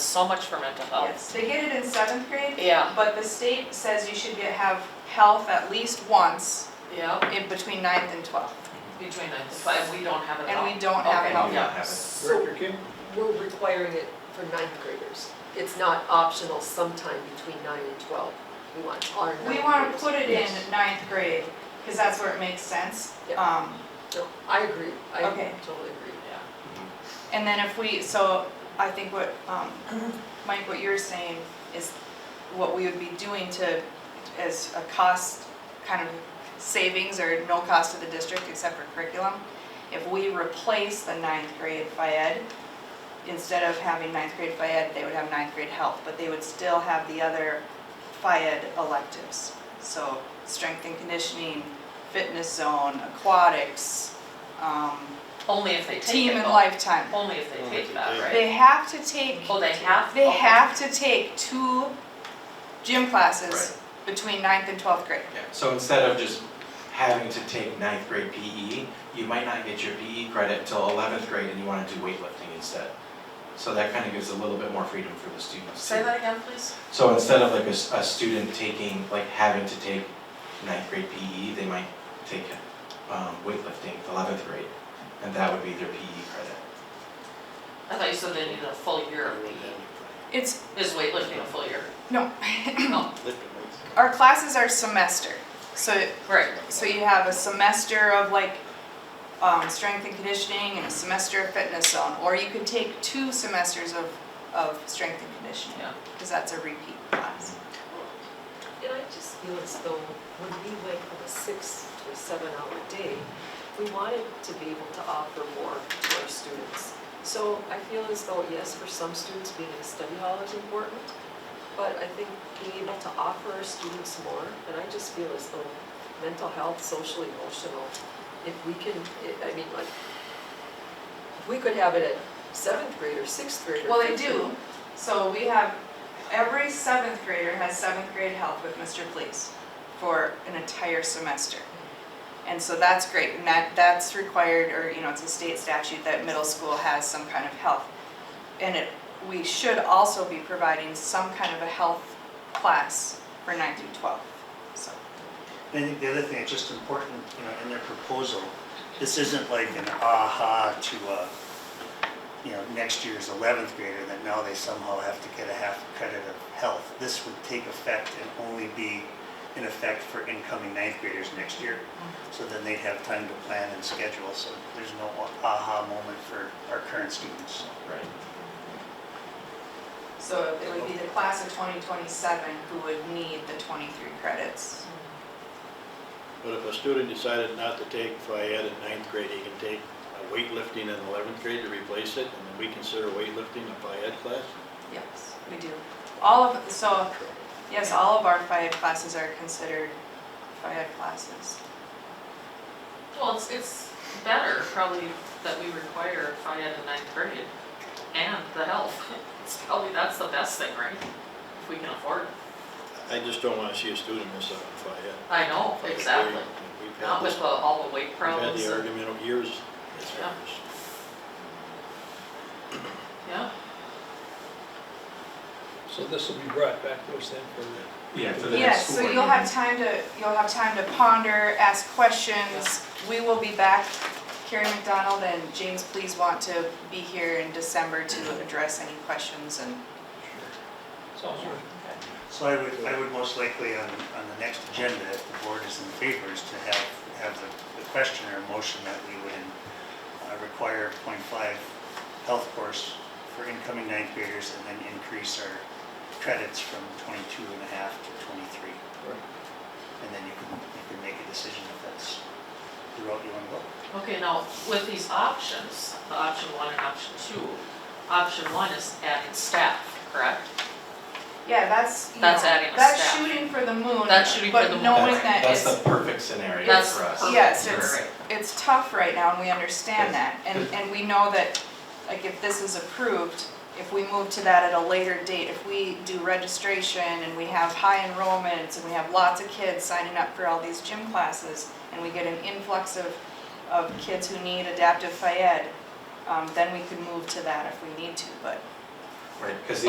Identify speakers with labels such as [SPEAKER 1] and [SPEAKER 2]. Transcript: [SPEAKER 1] so much for mental health.
[SPEAKER 2] Yes, they get it in seventh grade,
[SPEAKER 1] Oh. Yeah,
[SPEAKER 2] but the state says you should get, have health at least once
[SPEAKER 1] yeah,
[SPEAKER 2] in between ninth and twelfth,
[SPEAKER 1] between nine and five, we don't have it at all.
[SPEAKER 2] and we don't have
[SPEAKER 1] Okay.
[SPEAKER 2] health.
[SPEAKER 1] Yeah.
[SPEAKER 3] Director Kim?
[SPEAKER 4] We're requiring it for ninth graders. It's not optional sometime between nine and twelve. We want our ninth
[SPEAKER 2] We wanna
[SPEAKER 4] graders.
[SPEAKER 2] put it in
[SPEAKER 4] Yes.
[SPEAKER 2] ninth grade, cause that's where it makes sense.
[SPEAKER 4] Yep.
[SPEAKER 2] Um,
[SPEAKER 4] No, I agree. I
[SPEAKER 2] Okay.
[SPEAKER 4] totally agree.
[SPEAKER 1] Yeah,
[SPEAKER 2] And then if we, so I think what, um, Mike, what you're saying is what we would be doing to, as a cost, kind of savings or no cost to the district except for curriculum. If we replace the ninth grade FIED, instead of having ninth grade FIED, they would have ninth grade health, but they would still have the other FIED electives. So strength and conditioning, fitness zone, aquatics, um,
[SPEAKER 1] only if they take it.
[SPEAKER 2] team and
[SPEAKER 1] though.
[SPEAKER 2] lifetime.
[SPEAKER 1] Only if they
[SPEAKER 3] Only if
[SPEAKER 1] take
[SPEAKER 3] they
[SPEAKER 1] that,
[SPEAKER 3] take
[SPEAKER 1] right?
[SPEAKER 2] They have to take,
[SPEAKER 1] Oh, they have?
[SPEAKER 2] they
[SPEAKER 1] Okay.
[SPEAKER 2] have to take two gym classes between ninth and twelfth grade.
[SPEAKER 5] Yeah, so instead of just having to take ninth grade PE, you might not get your PE credit till eleventh grade and you wanna do weightlifting instead. So that kinda gives a little bit more freedom for the students.
[SPEAKER 1] Say
[SPEAKER 5] too.
[SPEAKER 1] that again, please.
[SPEAKER 5] So instead of like a, s- a student taking, like having to take ninth grade PE, they might take, um, weightlifting eleventh grade. And that would be their E PE credit.
[SPEAKER 1] I thought you said they needed a full year of PE.
[SPEAKER 2] It's,
[SPEAKER 1] Is weightlifting a full year? Oh,
[SPEAKER 2] no,
[SPEAKER 1] No,
[SPEAKER 2] our classes are semester, so,
[SPEAKER 1] right.
[SPEAKER 2] so you have a semester of like, um, strength and conditioning and a semester of fitness zone, or you could take two semesters of, of strength and conditioning,
[SPEAKER 1] Yeah.
[SPEAKER 2] because that's a repeat class.
[SPEAKER 4] And I just feel as though when we went from a six to a seven hour day, we wanted to be able to offer more to our students. So I feel as though, yes, for some students, being in a study hall is important, but I think being able to offer our students more, and I just feel as though mental health, social, emotional, if we can, I- I mean, like, if we could have it at seventh grade or sixth grade or
[SPEAKER 2] Well, they
[SPEAKER 4] fifth grade,
[SPEAKER 2] do, so we have, every seventh grader has seventh grade health with Mr. Please for an entire semester. And so that's great, and that, that's required, or, you know, it's a state statute that middle school has some kind of health. And it, we should also be providing some kind of a health class for nine through twelve, so.
[SPEAKER 6] I think the other thing that's just important, you know, in their proposal, this isn't like an aha to a, you know, next year's eleventh grader that now they somehow have to get a half credit of health. This would take effect and only be in effect for incoming ninth graders next year. So then they'd have time to plan and schedule, so there's no aha moment for our current students.
[SPEAKER 5] Right.
[SPEAKER 2] So it would be the class of twenty twenty-seven who would need the twenty-three credits.
[SPEAKER 7] But if a student decided not to take FIAD in ninth grade, he can take uh, weightlifting in eleventh grade to replace it, and then we consider weightlifting a FIAD class?
[SPEAKER 2] Yes, we do. All of, so, yes, all of our FIAD classes are considered FIAD classes.
[SPEAKER 1] Well, it's, it's better probably that we require FIAD in ninth grade and the health. It's probably, that's the best thing, right? If we can afford it.
[SPEAKER 7] I just don't wanna see a student miss out on FIAD.
[SPEAKER 1] I know, exactly.
[SPEAKER 7] We've had
[SPEAKER 1] Not
[SPEAKER 7] this,
[SPEAKER 1] with the, all the weight
[SPEAKER 7] we've had
[SPEAKER 1] problems.
[SPEAKER 7] the
[SPEAKER 1] and-
[SPEAKER 7] argument of years.
[SPEAKER 1] Yeah. Yeah,
[SPEAKER 8] So this will be brought back to us then for the
[SPEAKER 5] Yeah, for the next
[SPEAKER 2] Yes,
[SPEAKER 5] school.
[SPEAKER 2] so
[SPEAKER 5] board
[SPEAKER 2] you'll
[SPEAKER 5] meeting.
[SPEAKER 2] have time to, you'll have time to ponder, ask questions. We will be back, Carrie McDonald and James, please want to be here in December to address any questions and
[SPEAKER 8] sounds good.
[SPEAKER 6] So I would, I would most likely on, on the next agenda, if the board is in favor, is to have, have the, the question or motion that we would uh, require point five health course for incoming ninth graders and then increase our credits from twenty-two and a half to twenty-three. And then you can, you can make a decision if that's the route you want to go.
[SPEAKER 1] okay, now with these options, the option one and option two, option one is adding staff, correct?
[SPEAKER 2] Yeah, that's, you know,
[SPEAKER 1] That's adding a
[SPEAKER 2] that's
[SPEAKER 1] staff.
[SPEAKER 2] shooting for the moon.
[SPEAKER 1] That's shooting for the
[SPEAKER 2] But
[SPEAKER 1] moon.
[SPEAKER 2] knowing
[SPEAKER 5] That's-
[SPEAKER 2] that
[SPEAKER 5] That's
[SPEAKER 2] it's,
[SPEAKER 5] the perfect scenario for
[SPEAKER 1] That's
[SPEAKER 5] us.
[SPEAKER 1] perfect.
[SPEAKER 2] Yes,
[SPEAKER 1] You're
[SPEAKER 2] it's-
[SPEAKER 1] right.
[SPEAKER 2] it's tough right now and we understand that. And, and we know that, like, if this is approved, if we move to that at a later date, if we do registration and we have high enrollments and we have lots of kids signing up for all these gym classes and we get an influx of, of kids who need adaptive phys ed, um, then we could move to that if we need to, but
[SPEAKER 5] Right, 'cause the